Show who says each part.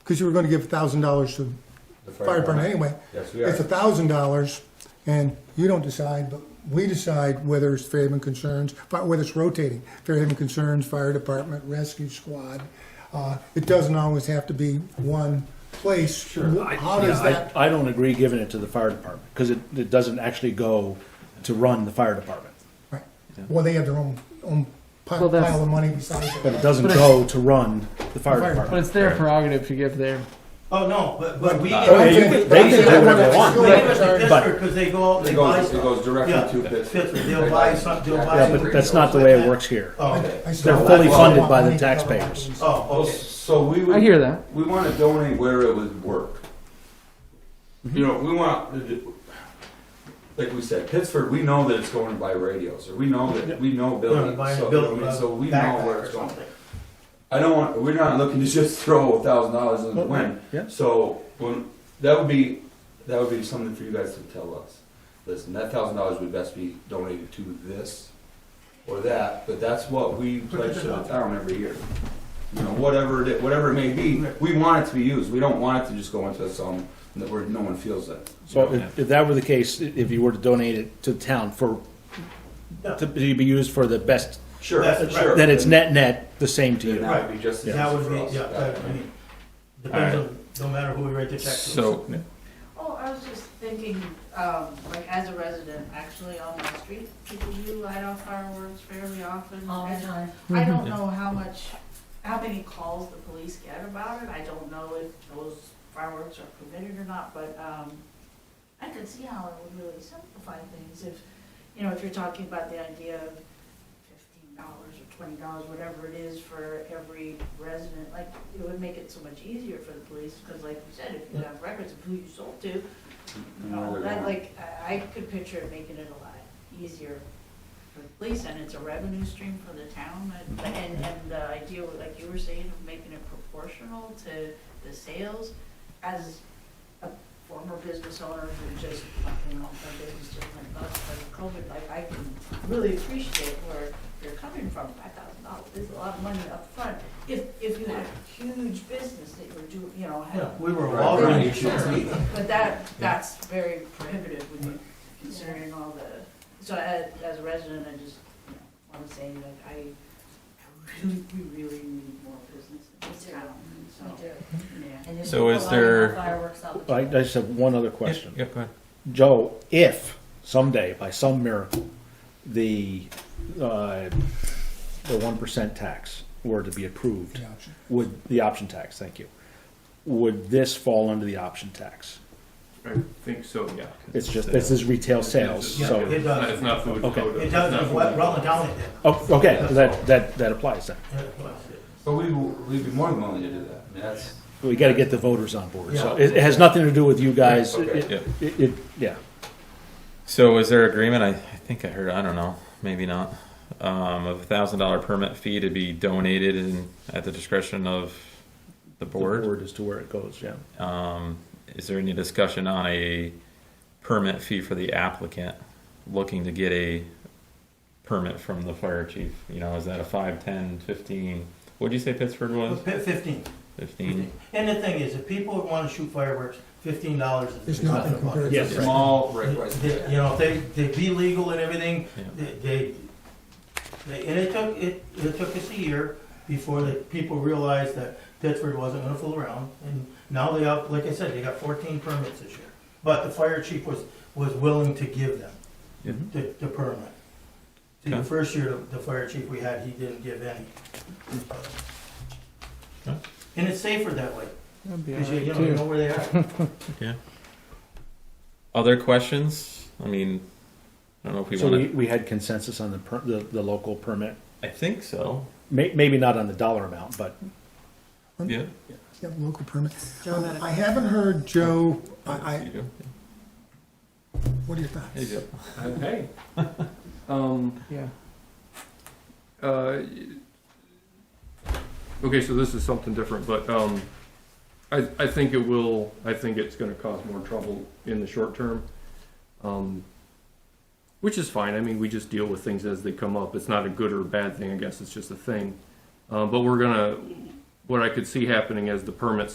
Speaker 1: because you were gonna give thousand dollars to
Speaker 2: The
Speaker 1: the fire department anyway.
Speaker 2: Yes, we
Speaker 1: It's
Speaker 2: are.
Speaker 1: thousand dollars, and you don't decide, but we decide whether it's Fairhaven Concerns, fi- whether it's rotating, Fairhaven Concerns, Fire Department, Rescue Squad. Uh, It doesn't always have to be one place.
Speaker 3: I-
Speaker 1: How does
Speaker 3: yeah, I-
Speaker 1: that,
Speaker 3: I don't agree giving it to the fire department, because it, it doesn't actually go to run the fire department.
Speaker 1: right. well, they have their own, own pi-
Speaker 4: Well, that's-
Speaker 1: pile of money besides.
Speaker 3: But it
Speaker 1: that.
Speaker 3: doesn't
Speaker 4: But
Speaker 3: go to run the
Speaker 1: Fire
Speaker 3: fire
Speaker 4: But
Speaker 3: department.
Speaker 4: it's their prerogative to give their.
Speaker 5: Oh, no, but, but we.
Speaker 3: Oh, yeah, you
Speaker 5: We
Speaker 3: can- they can do whatever they want.
Speaker 5: give it to
Speaker 3: But-
Speaker 5: Pittsburgh, cause they go out,
Speaker 2: It
Speaker 5: they buy
Speaker 2: goes,
Speaker 5: stuff.
Speaker 2: it goes
Speaker 5: Yeah,
Speaker 2: directly to Pittsburgh.
Speaker 5: Pittsburgh, they'll buy some, they'll buy.
Speaker 3: Yeah, but that's not the way it works here.
Speaker 5: Oh, okay.
Speaker 1: I said,
Speaker 3: They're
Speaker 1: well,
Speaker 3: fully
Speaker 1: that's
Speaker 3: funded
Speaker 1: what
Speaker 3: by
Speaker 1: I
Speaker 3: the
Speaker 1: need to cover my
Speaker 3: taxpayers.
Speaker 1: bases.
Speaker 5: Oh, okay.
Speaker 2: So we would.
Speaker 4: I hear that.
Speaker 2: We want to donate where it would work.
Speaker 4: Mm-hmm.
Speaker 2: You know, we want, like we said, Pittsburgh, we know that it's going to buy radios, or we know that, we know buildings.
Speaker 5: Buy a
Speaker 2: So,
Speaker 5: building,
Speaker 2: I mean, so we know
Speaker 5: backpack
Speaker 2: where
Speaker 5: or
Speaker 2: it's going.
Speaker 5: something.
Speaker 2: I don't want, we're not looking to just throw a thousand dollars in the
Speaker 3: Well,
Speaker 2: wind.
Speaker 3: yeah.
Speaker 2: So, when, that would be, that would be something for you guys to tell us. Listen, that thousand dollars would best be donated to this or that, but that's what we pledge to the town every year. You know, whatever it, whatever it may be, we want it to be used. We don't want it to just go into some, that where no one feels that.
Speaker 3: So if, if that were the case, i- if you were to donate it to the town for,
Speaker 5: Yeah.
Speaker 3: to be used for the best,
Speaker 2: Sure,
Speaker 5: That's right.
Speaker 2: sure.
Speaker 3: then it's net, net, the same to
Speaker 2: Then
Speaker 3: you.
Speaker 2: that would be just. as
Speaker 5: That
Speaker 2: easy
Speaker 5: would
Speaker 2: for us.
Speaker 5: be, yeah, that, I mean, depends on, no matter who we write the check to.
Speaker 6: So,
Speaker 7: Oh, I was just thinking, um, like as a resident, actually on my street, people do light off fireworks fairly often.
Speaker 8: all the
Speaker 7: and
Speaker 8: time.
Speaker 7: I don't know how much, how many calls the police get about it. I don't know if those fireworks are permitted or not, but, um, I could see how it would really simplify things if, you know, if you're talking about the idea of fifteen dollars or twenty dollars, whatever it is for every resident, like, it would make it so much easier for the police, because like you said, if you have records of who you sold to,
Speaker 2: You know,
Speaker 7: Oh,
Speaker 2: they're
Speaker 7: That,
Speaker 2: gonna-
Speaker 7: like, I I could picture it making it a lot easier for the police, and it's a revenue stream for the town, and- and, and the idea, like you were saying, of making it proportional to the sales, as a former business owner who just, you know, my business just went bust because of COVID, like, I can really appreciate where you're coming from, five thousand dollars is a lot of money up front. if, if you had a huge business that you were doing, you know,
Speaker 5: Yeah,
Speaker 7: had
Speaker 5: we were
Speaker 2: Right,
Speaker 5: all
Speaker 2: right,
Speaker 5: around
Speaker 2: you
Speaker 5: each
Speaker 2: should
Speaker 5: other.
Speaker 2: see.
Speaker 7: but that, that's very prohibitive when you're considering all the, so as, as a resident, I just, you know, wanna say that I, I really, we really need more business in this
Speaker 8: We do.
Speaker 7: town, so,
Speaker 8: We do.
Speaker 7: yeah.
Speaker 8: And there's
Speaker 6: So is
Speaker 8: people lighting
Speaker 6: there-
Speaker 8: up Fireworks all the
Speaker 3: I, I
Speaker 8: time.
Speaker 3: just have one other question.
Speaker 6: yeah, go ahead.
Speaker 3: Joe, if someday, by some miracle, the uh, the one percent tax were to be approved,
Speaker 1: The option.
Speaker 3: would the option tax? Thank you. Would this fall under the option tax?
Speaker 6: I think so, yeah.
Speaker 3: It's just this is retail sales,
Speaker 5: Yeah,
Speaker 3: so
Speaker 5: it does,
Speaker 6: It's not food.
Speaker 3: Okay.
Speaker 5: it does, it's what Rutland County did.
Speaker 3: oh, okay, that that that applies then.
Speaker 5: Yeah, it was.
Speaker 2: But we, will- we'd be more than willing to do that. I mean, that's.
Speaker 3: We got to get the voters on board. So
Speaker 5: Yeah.
Speaker 3: it, it has nothing to do with you guys. It-
Speaker 2: Okay.
Speaker 3: It, it, it- yeah.
Speaker 6: So is there agreement? I, I think I heard, I don't know, maybe not, um, of a thousand dollar permit fee to be donated and at the discretion of the
Speaker 3: The
Speaker 6: board?
Speaker 3: board as to where it goes. Yeah.
Speaker 6: Um, is there any discussion on a permit fee for the applicant looking to get a permit from the fire chief? You know, is that a five, ten, fifteen? What'd you say Pittsburgh was?
Speaker 5: Fif- Fifteen.
Speaker 6: Fifteen?
Speaker 5: And the thing is, if people want to shoot fireworks, fifteen dollars
Speaker 1: It's
Speaker 5: is
Speaker 1: nothing
Speaker 5: nothing.
Speaker 1: compared to-
Speaker 3: Yes.
Speaker 5: Yes,
Speaker 2: Small, right, right.
Speaker 5: You know, they, they be legal and everything,
Speaker 6: Yeah.
Speaker 5: they, they, they- and it took, it, it took us a year before the people realized that Pittsburgh wasn't gonna fool around. And now they have, like I said, they got fourteen permits this year. But the fire chief was, was willing to give them
Speaker 6: Mhm.
Speaker 5: the, the permit. See, the
Speaker 6: Okay.
Speaker 5: first year, the fire chief we had, he didn't give any.
Speaker 6: Okay.
Speaker 5: And it's safer that way.
Speaker 4: That'd be
Speaker 5: Because you, you
Speaker 4: alright
Speaker 5: know, you
Speaker 4: too.
Speaker 5: know where they are.
Speaker 6: Other questions? I mean, I don't know if we
Speaker 3: So
Speaker 6: want
Speaker 3: we,
Speaker 6: to.
Speaker 3: we had consensus on the, per, the the local permit.
Speaker 6: I think so.
Speaker 3: May, maybe not on the dollar amount, but
Speaker 6: Yeah.
Speaker 1: Yeah, local permit.
Speaker 4: Joe had a-
Speaker 1: I haven't heard, Joe, I, I,
Speaker 6: You do.
Speaker 1: what are your
Speaker 6: You
Speaker 1: thoughts?
Speaker 6: do.
Speaker 9: Okay. Um,
Speaker 4: Yeah.
Speaker 9: uh, okay, so this is something different, but, um, I, I think it will, I think it's gonna cause more trouble in the short term. Um, which is fine, I mean, we just deal with things as they come up, it's not a good or a bad thing, I guess, it's just a thing. Uh, but we're gonna, what I could see happening as the permits